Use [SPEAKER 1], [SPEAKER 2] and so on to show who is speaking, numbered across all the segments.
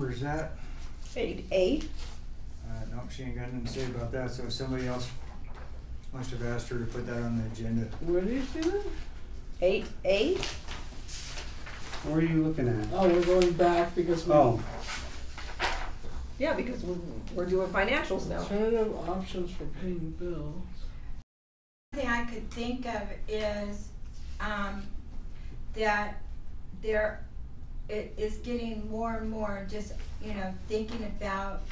[SPEAKER 1] number is that?
[SPEAKER 2] Eight. Eight?
[SPEAKER 1] Uh, nope, she ain't got nothing to say about that, so somebody else must have asked her to put that on the agenda.
[SPEAKER 3] What is it?
[SPEAKER 2] Eight, eight?
[SPEAKER 4] What are you looking at?
[SPEAKER 3] Oh, we're going back because we.
[SPEAKER 4] Oh,
[SPEAKER 2] Yeah, because we're, we're doing financials now.
[SPEAKER 3] Alternative options for paying bills.
[SPEAKER 5] thing I could think of is, um, that there, it is getting more and more just, you know, thinking about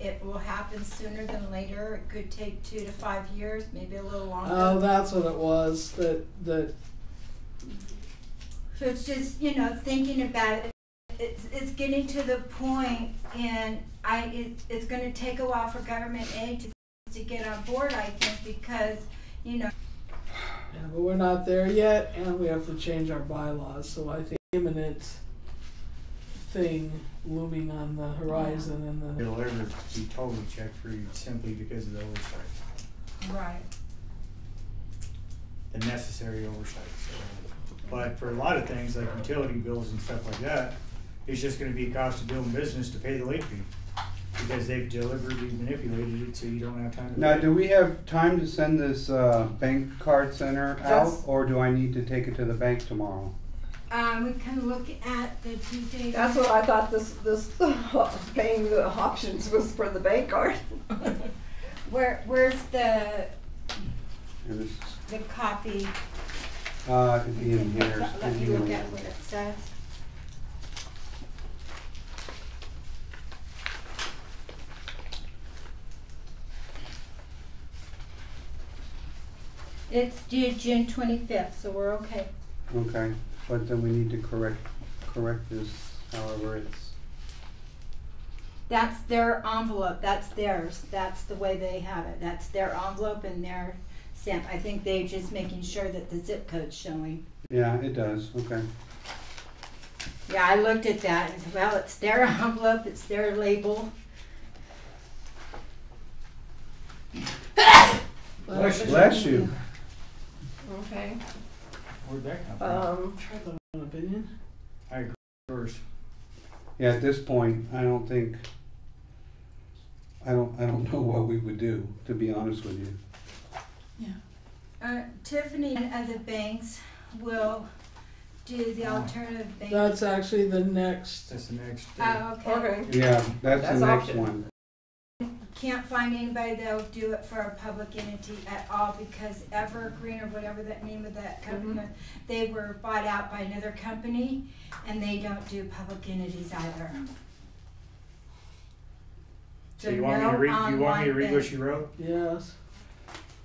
[SPEAKER 5] it will happen sooner than later. It could take two to five years, maybe a little longer.
[SPEAKER 3] Oh, that's what it was, that, that,
[SPEAKER 5] So it's just, you know, thinking about it, it's, it's getting to the point and I, it, it's gonna take a while for government aid to, to get on board, I think, because, you know,
[SPEAKER 3] yeah, but we're not there yet and we have to change our bylaws, so I think imminent thing looming on the horizon and the,
[SPEAKER 1] It'll ever be totally checked for you simply because of the oversight,
[SPEAKER 5] right,
[SPEAKER 1] the necessary oversight, so. But for a lot of things like utility bills and stuff like that, it's just gonna be a cost of doing business to pay the late fee. Because they've deliberately manipulated it so you don't have time to.
[SPEAKER 4] now
[SPEAKER 1] pay.
[SPEAKER 4] do we have time to send this uh, bank card center out,
[SPEAKER 2] That's-
[SPEAKER 4] or do I need to take it to the bank tomorrow?
[SPEAKER 5] um, we can look at the due date.
[SPEAKER 2] That's what I thought this, this paying the options was for the bank card.
[SPEAKER 5] Where, where's the,
[SPEAKER 4] And it's,
[SPEAKER 5] the copy?
[SPEAKER 4] uh, it'd be in here.
[SPEAKER 5] Let- Let me look at what it says. It's due June twenty-fifth, so we're okay.
[SPEAKER 4] Okay, but then we need to correct, correct this however it's,
[SPEAKER 5] That's their envelope, that's theirs, that's the way they have it, that's their envelope and their stamp. I think they're just making sure that the zip code's showing.
[SPEAKER 4] yeah, it does, okay.
[SPEAKER 5] Yeah, I looked at that and said, well, it's their envelope, it's their label.
[SPEAKER 4] Bless you.
[SPEAKER 2] Okay.
[SPEAKER 1] Where'd that come from?
[SPEAKER 2] Um,
[SPEAKER 3] An opinion?
[SPEAKER 1] I agree, yours.
[SPEAKER 4] Yeah, at this point, I don't think, I don't, I don't know what we would do, to be honest with you.
[SPEAKER 5] Uh, Tiffany and other banks will do
[SPEAKER 1] Oh.
[SPEAKER 5] the alternative bank.
[SPEAKER 3] That's actually the next,
[SPEAKER 1] That's the next. uh,
[SPEAKER 5] Oh, okay.
[SPEAKER 2] okay.
[SPEAKER 4] Yeah, that's the
[SPEAKER 2] That's
[SPEAKER 4] next
[SPEAKER 2] option.
[SPEAKER 4] one.
[SPEAKER 5] Can't find anybody that'll do it for a public entity at all because Evergreen or whatever that name of that company, was, they were bought out by another company and they don't do public entities either.
[SPEAKER 1] So you want me to
[SPEAKER 5] no
[SPEAKER 1] read, you want me to
[SPEAKER 5] online
[SPEAKER 1] read what
[SPEAKER 5] bank.
[SPEAKER 1] she wrote?
[SPEAKER 3] yes.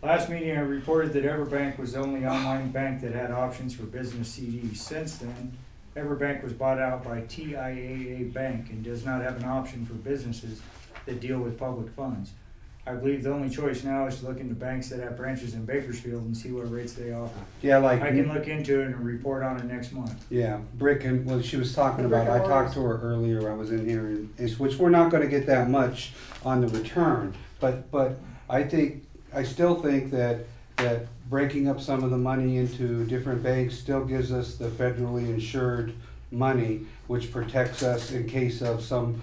[SPEAKER 1] Last meeting, I reported that EverBank was the only online bank that had options for business CDs. Since then, EverBank was bought out by TIAA Bank and does not have an option for businesses that deal with public funds. I believe the only choice now is to look into banks that have branches in Bakersfield and see what rates they offer.
[SPEAKER 4] Yeah, like.
[SPEAKER 1] I can look into it and report on it next month.
[SPEAKER 4] Yeah, brick and, well, she was talking
[SPEAKER 2] The brick
[SPEAKER 4] about, I
[SPEAKER 2] and
[SPEAKER 4] talked to her earlier, I was in here, and, and- which we're not gonna get that much on the return, but, but I think, I still think that, that breaking up some of the money into different banks still gives us the federally insured money, which protects us in case of some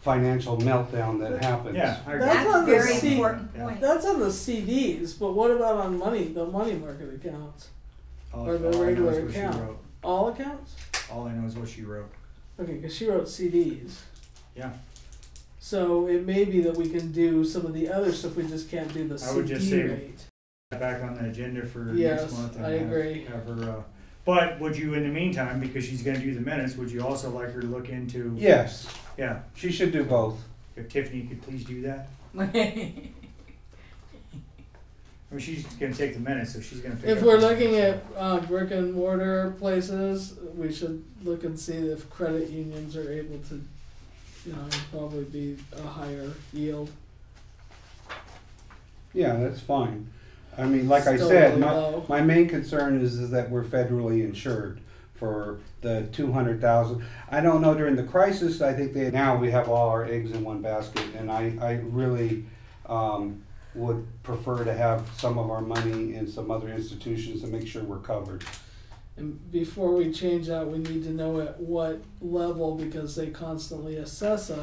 [SPEAKER 4] financial meltdown that happens.
[SPEAKER 1] Yeah, I agree.
[SPEAKER 3] That's
[SPEAKER 5] That's
[SPEAKER 3] on
[SPEAKER 5] a
[SPEAKER 3] the
[SPEAKER 5] very
[SPEAKER 3] C-
[SPEAKER 5] important
[SPEAKER 1] Yeah.
[SPEAKER 5] point.
[SPEAKER 3] That's on the CDs, but what about on money, the money market accounts?
[SPEAKER 1] All
[SPEAKER 3] Or the
[SPEAKER 1] all I know
[SPEAKER 3] regular
[SPEAKER 1] is what she
[SPEAKER 3] account.
[SPEAKER 1] wrote.
[SPEAKER 3] All accounts?
[SPEAKER 1] All I know is what she wrote.
[SPEAKER 3] Okay, because she wrote CDs.
[SPEAKER 1] Yeah.
[SPEAKER 3] So it may be that we can do some of the other stuff, we just can't do the
[SPEAKER 1] I would just
[SPEAKER 3] CD
[SPEAKER 1] say-
[SPEAKER 3] rate.
[SPEAKER 1] back on the agenda for
[SPEAKER 3] Yes,
[SPEAKER 1] next month. and
[SPEAKER 3] I
[SPEAKER 1] have-
[SPEAKER 3] agree.
[SPEAKER 1] Have her, uh, but would you, in the meantime, because she's gonna do the minutes, would you also like her to look into?
[SPEAKER 4] Yes,
[SPEAKER 1] Yeah,
[SPEAKER 4] she should do both.
[SPEAKER 1] if Tiffany could please do that. I mean, she's gonna take the minutes, so she's gonna. pick
[SPEAKER 3] If
[SPEAKER 1] up
[SPEAKER 3] we're
[SPEAKER 1] the-
[SPEAKER 3] looking at uh, brick and mortar places, we should look and see if credit unions are able to, you know, probably be a higher yield.
[SPEAKER 4] Yeah, that's fine. I mean, like I
[SPEAKER 3] Still
[SPEAKER 4] said,
[SPEAKER 3] really
[SPEAKER 4] my,
[SPEAKER 3] low.
[SPEAKER 4] my main concern is, is that we're federally insured for the two hundred thousand. I don't know, during the crisis, I think they, now we have all our eggs in one basket, and I, I really, um, would prefer to have some of our money in some other institutions to make sure we're covered.
[SPEAKER 3] And before we change that, we need to know at what level, because they constantly assess us.